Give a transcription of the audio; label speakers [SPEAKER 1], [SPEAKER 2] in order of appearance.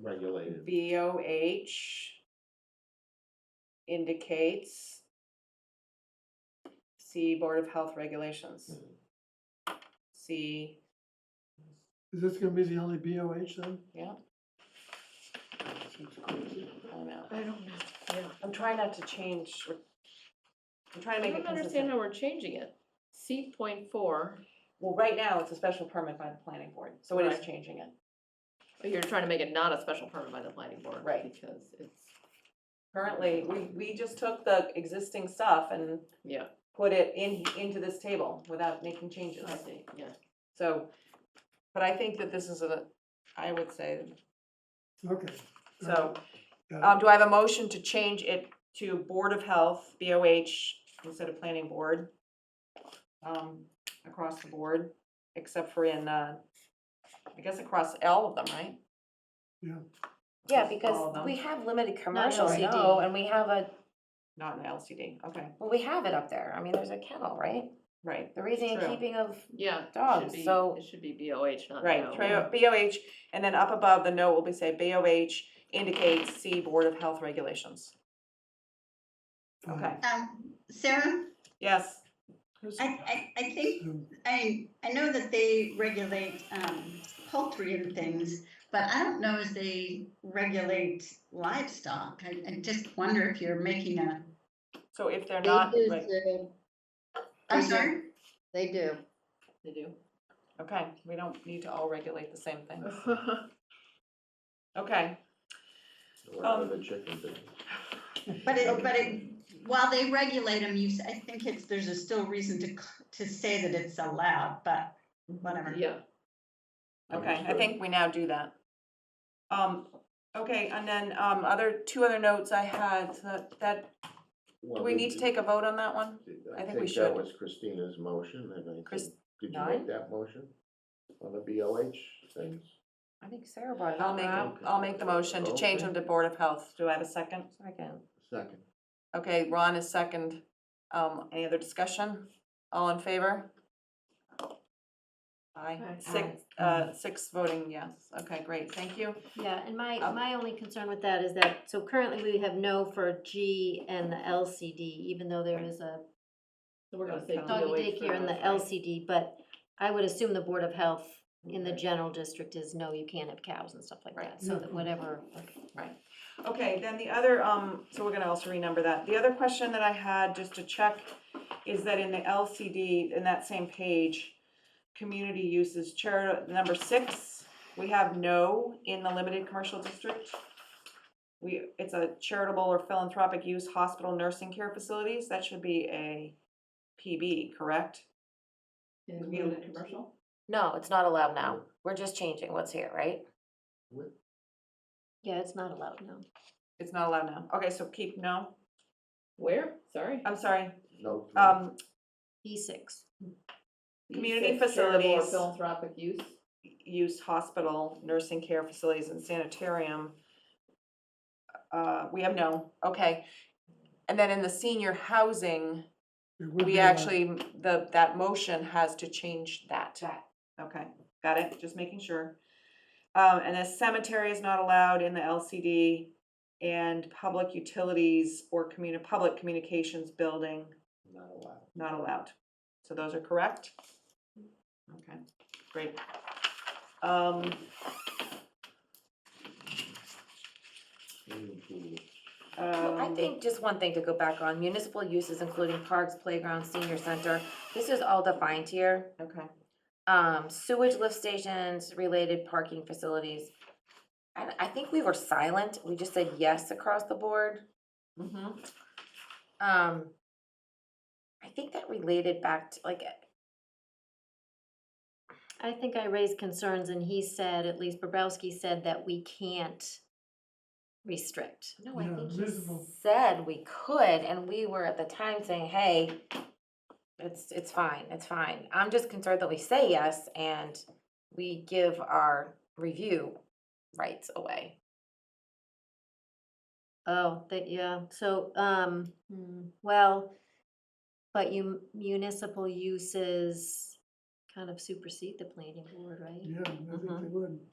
[SPEAKER 1] regulated.
[SPEAKER 2] BOH indicates see Board of Health regulations. See,
[SPEAKER 3] Is this gonna be the only BOH then?
[SPEAKER 2] yeah,
[SPEAKER 3] That's crazy.
[SPEAKER 2] I don't know.
[SPEAKER 4] I don't know, yeah.
[SPEAKER 2] I'm trying not to change. re- I'm trying to
[SPEAKER 4] I
[SPEAKER 2] make it
[SPEAKER 4] don't
[SPEAKER 2] consistent.
[SPEAKER 4] understand how we're changing it. C point four,
[SPEAKER 2] Well, right now, it's a special permit by the planning board, so it is
[SPEAKER 4] Right.
[SPEAKER 2] changing it.
[SPEAKER 4] but oh, you're trying to make it not a special permit by the planning board.
[SPEAKER 2] Right.
[SPEAKER 4] Because it's,
[SPEAKER 2] Currently, we, we just took the existing stuff and
[SPEAKER 4] yeah,
[SPEAKER 2] put it in, into this table without making changes.
[SPEAKER 4] I see, yeah.
[SPEAKER 2] So, but I think that this is a, I would say,
[SPEAKER 3] Okay.
[SPEAKER 2] so,
[SPEAKER 3] Got it.
[SPEAKER 2] um, do I have a motion to change it to Board of Health, BOH, instead of Planning Board? Um, across the board, except for in, uh, I guess across all of them, right?
[SPEAKER 5] Yeah,
[SPEAKER 2] Just all of them.
[SPEAKER 5] because we have limited commercial
[SPEAKER 4] LCD.
[SPEAKER 5] CDO and we have a,
[SPEAKER 2] Not in LCD, okay,
[SPEAKER 5] well, we have it up there. I mean, there's a kennel, right?
[SPEAKER 2] right,
[SPEAKER 5] The raising and
[SPEAKER 2] True.
[SPEAKER 5] keeping of,
[SPEAKER 4] Yeah. it should
[SPEAKER 5] Dogs,
[SPEAKER 4] be-
[SPEAKER 5] so-
[SPEAKER 4] It should be BOH, not
[SPEAKER 2] right,
[SPEAKER 4] no.
[SPEAKER 2] tra- BOH, and then up above the note will be say BOH indicates C Board of Health regulations.
[SPEAKER 3] Fine.
[SPEAKER 2] Okay,
[SPEAKER 6] Um, Sarah,
[SPEAKER 2] yes. Who's-
[SPEAKER 6] I, I, I think,
[SPEAKER 3] So,
[SPEAKER 6] I, I know that they regulate, um, poultry and things, but I don't know if they regulate livestock. I, I just wonder if you're making a,
[SPEAKER 2] So if they're
[SPEAKER 7] They
[SPEAKER 2] not,
[SPEAKER 7] do,
[SPEAKER 2] right,
[SPEAKER 7] Sue.
[SPEAKER 6] I'm
[SPEAKER 7] Mhm.
[SPEAKER 6] sorry?
[SPEAKER 7] They do.
[SPEAKER 4] They do.
[SPEAKER 2] okay, we don't need to all regulate the same thing, okay.
[SPEAKER 1] We're out of
[SPEAKER 2] Um,
[SPEAKER 1] the chicken business.
[SPEAKER 6] But it, but it, while they regulate them, you, s- I think it's, there's a still reason to, c- to say that it's allowed, but whatever.
[SPEAKER 4] Yeah,
[SPEAKER 2] Okay, I
[SPEAKER 1] Understood.
[SPEAKER 2] think we now do that. Um, okay, and then, um, other, two other notes I had, so that- that, do
[SPEAKER 1] Well,
[SPEAKER 2] we
[SPEAKER 1] Oh, did
[SPEAKER 2] need to
[SPEAKER 1] you-
[SPEAKER 2] take a vote on that one? I think we should.
[SPEAKER 1] that was Christina's motion, and I think,
[SPEAKER 2] Chris-
[SPEAKER 1] did you
[SPEAKER 2] Nine?
[SPEAKER 1] make that motion on the BOH things?
[SPEAKER 5] I think Sarah brought it
[SPEAKER 2] I'll
[SPEAKER 5] up.
[SPEAKER 2] make,
[SPEAKER 5] right?
[SPEAKER 1] Okay.
[SPEAKER 2] I'll make the motion to change them to Board of Health. Do I have a second?
[SPEAKER 5] Second.
[SPEAKER 1] Second.
[SPEAKER 2] Okay, Ron is second. Um, any other discussion? All in favor? Aye,
[SPEAKER 4] Aye.
[SPEAKER 2] six, uh, six voting yes. Okay, great, thank you.
[SPEAKER 8] Yeah, and my,
[SPEAKER 4] Oh.
[SPEAKER 2] Um,
[SPEAKER 8] my only concern with that is that, so currently we have no for G and the LCD, even though there is a
[SPEAKER 4] so we're gonna say
[SPEAKER 2] Doggy
[SPEAKER 4] BOH
[SPEAKER 8] doggy
[SPEAKER 4] for
[SPEAKER 8] daycare in the
[SPEAKER 4] those, right?
[SPEAKER 8] LCD, but I would assume the Board of Health in the general district is, no, you can't have cows and stuff like
[SPEAKER 2] Right.
[SPEAKER 8] that, so
[SPEAKER 5] Mm-hmm.
[SPEAKER 8] that whatever,
[SPEAKER 2] Okay, then the other, um, so we're gonna also renumber that. The other question that I had, just to check, is that in the LCD, in that same page, community uses charity, number six, we have no in the limited commercial district. We, it's a charitable or philanthropic use hospital nursing care facilities, that should be a PB, correct?
[SPEAKER 4] In limited commercial?
[SPEAKER 5] No, it's not allowed now. We're just changing what's here, right?
[SPEAKER 1] What-
[SPEAKER 8] yeah, it's not allowed, no.
[SPEAKER 2] It's not allowed now. Okay, so keep no,
[SPEAKER 4] Where? Sorry.
[SPEAKER 2] I'm sorry,
[SPEAKER 1] No. three.
[SPEAKER 2] um,
[SPEAKER 8] E six.
[SPEAKER 2] community
[SPEAKER 4] Safe, charitable, or
[SPEAKER 2] facilities.
[SPEAKER 4] Philanthropic use.
[SPEAKER 2] use hospital, nursing care facilities and sanitarium. Uh, we have no, okay. And then in the senior housing,
[SPEAKER 3] it would be
[SPEAKER 2] we
[SPEAKER 3] allowed.
[SPEAKER 2] actually, the, that motion has to change that. Okay, got it, just making sure. Um, and the cemetery is not allowed in the LCD and public utilities or communi- public communications building,
[SPEAKER 1] Not allowed.
[SPEAKER 2] not allowed. So those are correct? Okay, great. Um,
[SPEAKER 1] Swimming pool.
[SPEAKER 5] Well, I
[SPEAKER 2] Um,
[SPEAKER 5] think just one thing to go back on, municipal uses including parks, playgrounds, senior center, this is all defined here.
[SPEAKER 2] Okay,
[SPEAKER 5] um, sewage lift stations, related parking facilities. And I think we were silent, we just said yes across the board.
[SPEAKER 2] mm-hmm,
[SPEAKER 5] Um, I think that related back to, like,
[SPEAKER 8] I think I raised concerns and he said, at least Bobrowski said that we can't restrict.
[SPEAKER 5] no, I
[SPEAKER 3] Yeah,
[SPEAKER 5] think he
[SPEAKER 3] reasonable.
[SPEAKER 5] said we could, and we were at the time saying, hey, it's, it's fine, it's fine. I'm just concerned that we say yes and we give our review rights away.
[SPEAKER 8] Oh, that, yeah, so, um, hmm, well, but you municipal uses kind of supersede the planning board, right?
[SPEAKER 3] Yeah, I think
[SPEAKER 2] Mhm.
[SPEAKER 3] they would.